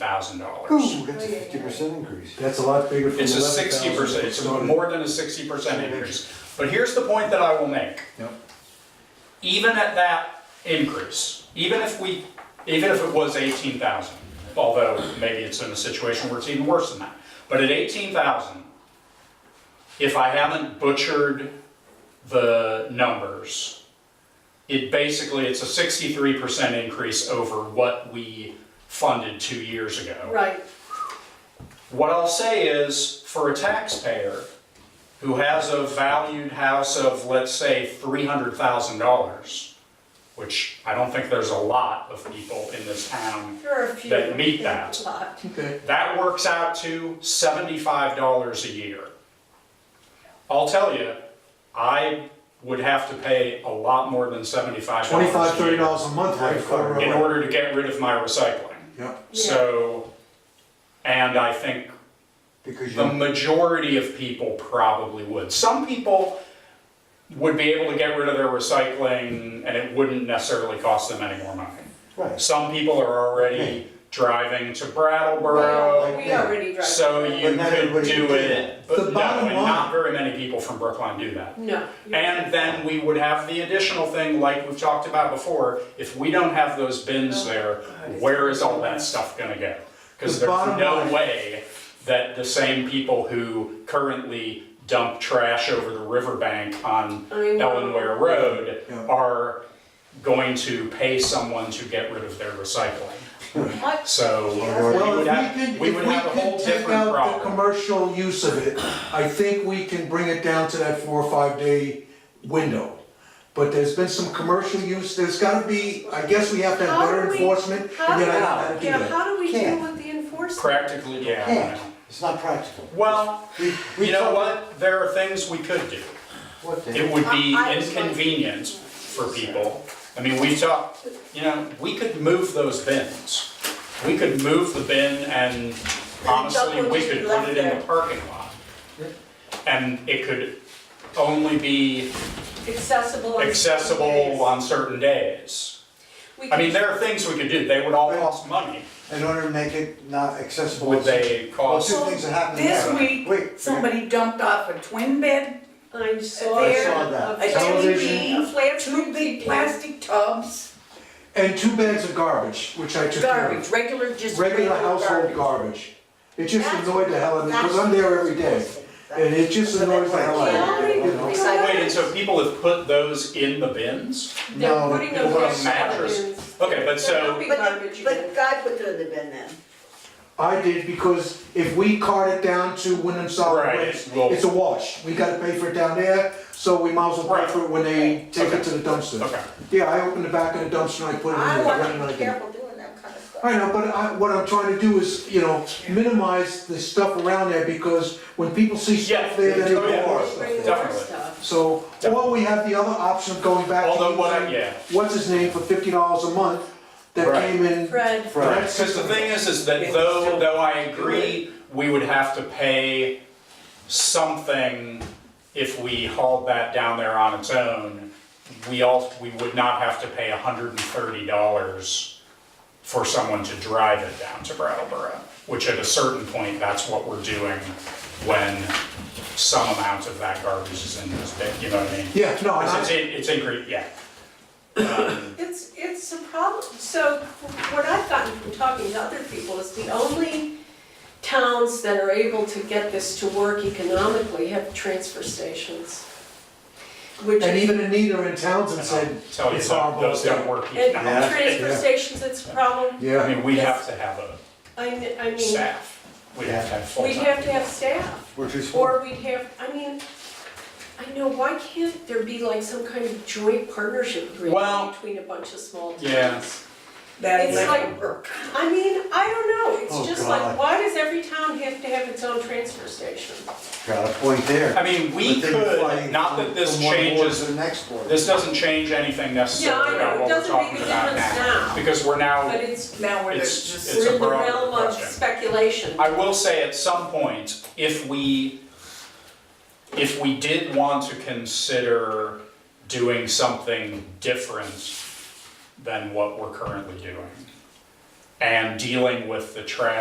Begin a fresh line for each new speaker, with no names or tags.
thousand dollars.
Ooh, that's a fifty percent increase.
That's a lot bigger from
It's a
11,000
sixty percent, it's
promoted.
more than a sixty percent increase. But here's the point that I will make.
Yep.
Even at that increase, even if we, even if it was eighteen thousand, although maybe it's in a situation where it's even worse than that. But at eighteen thousand, if I haven't butchered the numbers, it basically, it's a sixty-three percent increase over what we funded two years ago.
Right,
What I'll say is, for a taxpayer who has a valued house of, let's say, three hundred thousand dollars, which I don't think there's a lot of people in this town,
there are a few.
That meet that.
Lot.
Okay,
that works out to seventy-five dollars a year. I'll tell you, I would have to pay a lot more than seventy-five dollars a
twenty-five, thirty
year
dollars a month, right? if I remember.
in order to get rid of my recycling.
Yeah,
So, and I think
Because
The
Um,
you,
majority of people probably would. Some people would be able to get rid of their recycling and it wouldn't necessarily cost them any more money.
right,
Some people are already driving to Brattleboro,
Well, We already drive.
so you
But not
could
everybody
do
can do
it.
that.
The
But no,
bottom
and not
line-
very many people from Brookline do that.
No.
And then we would have the additional thing, like we've talked about before, if we don't have those
Oh,
bins there, where is all that stuff gonna go? Because
The
there's
bottom
no
line-
way that the same people who currently dump trash over the riverbank on
I mean,
Ellenware Road
Yeah.
are going to pay someone to get rid of their recycling.
What?
So we
well,
would
if we
have,
could,
we would have a
if we
whole
could take
different
out the
problem.
commercial use of it, I think we can bring it down to that four or five day window. But there's been some commercial use, there's gotta be, I guess we have to have
How
better
do we-
enforcement,
How
and
do,
then I don't know how to do
yeah,
that.
how do we deal
Can't.
with the enforcement?
Practically, yeah. I
can't,
know.
it's not practical.
Well,
We- we
you know
told-
what? There are things we could do.
What the?
It would be
I- I was like-
inconvenient for people. I mean, we talked, you know, we could move those bins. We could move the bin and honestly,
would
we
just be
could put
left
it in
there.
the parking lot. And it could only be
Accessible. on certain days.
accessible on certain days.
We
I mean,
could-
there are things we could do. They would all cost money.
In order to make it not accessible.
Would they
Well,
cost?
two things are happening
This
now.
week,
Wait,
Somebody dumped off a twin bed,
I saw
I
there.
saw that.
a
Television.
TV, a flat
two big
TV.
plastic tubs,
And two bags of garbage, which I took care
garbage,
of.
regular, just
Regular
regular
household
garbage.
garbage. It just
That's-
annoyed the hell out of me, because I'm there every day, and it just annoys the hell out of me, you know?
Wait, and so people have put those in the bins?
They're
No,
putting
people
them
put a
on the
mattress.
bins.
Okay, but
They're
so.
not big
But,
garbage
but
bins.
God put it in the bin then.
I did because if we cart it down to Wyndham Solid
Right,
Waste,
well-
it's a wash. We gotta pay for it down there, so we might as well
Right.
pay for it when they take
Okay.
it to the dumpster.
Okay.
Yeah, I opened the back of the dumpster and I put it in
I
there. right
want
when
to
I
be
did.
careful doing that kind of stuff.
I know, but I, what I'm trying to do is, you know, minimize the stuff around there because when people see
Yeah,
stuff there, then they
oh, yeah.
go
They
off.
bring their
Definitely.
stuff.
So, or we have the other option of going back to
Although what I-
using
yeah.
what's his name, for fifty dollars a month, that
Right.
came in.
Fred,
Right.
Because the thing is, is that though, though I agree, we would have to pay something if we hauled that down there on its own, we all, we would not have to pay hundred and thirty dollars for someone to drive it down to Brattleboro, which at a certain point, that's what we're doing when some amount of that garbage is in this bin, you know what I mean?
Yeah, no, and
Because it's,
I,
in- it's in, yeah.
it's, it's a problem, so what I've gotten from talking to other people is the only towns that are able to get this to work economically have transfer stations. Which
and
is-
even Anita in Townsend said,
Tell you,
it's
that
horrible.
those don't work.
And
now.
transfer stations, it's a problem,
Yeah.
I mean, we have to have a
I, kn- I mean,
staff. We'd have to have
we'd
full-time.
have to have staff.
We're too small.
Or we'd have, I mean, I know, why can't there be like some kind of joint partnership
Well-
agreement between a bunch of small towns?
Yeah.
That
It's
like,
like- I mean, I don't know,
Oh,
it's just
God.
like, why does every town have to have its own transfer station?
Got a point there.
I mean, we
But then you're
could,
flying
not
from-
that this
from one board To
changes,
the next board.
this doesn't change anything necessarily
Yeah, I know.
about what
It
we're
doesn't make
talking
a
about
difference
now.
now.
Because we're now,
But it's,
now where there's
It's-
just.
it's a
we're in the
broader
realm of
question.
speculation.
I will say at some point, if we, if we did want to consider doing something different than what we're currently doing, and dealing with the trash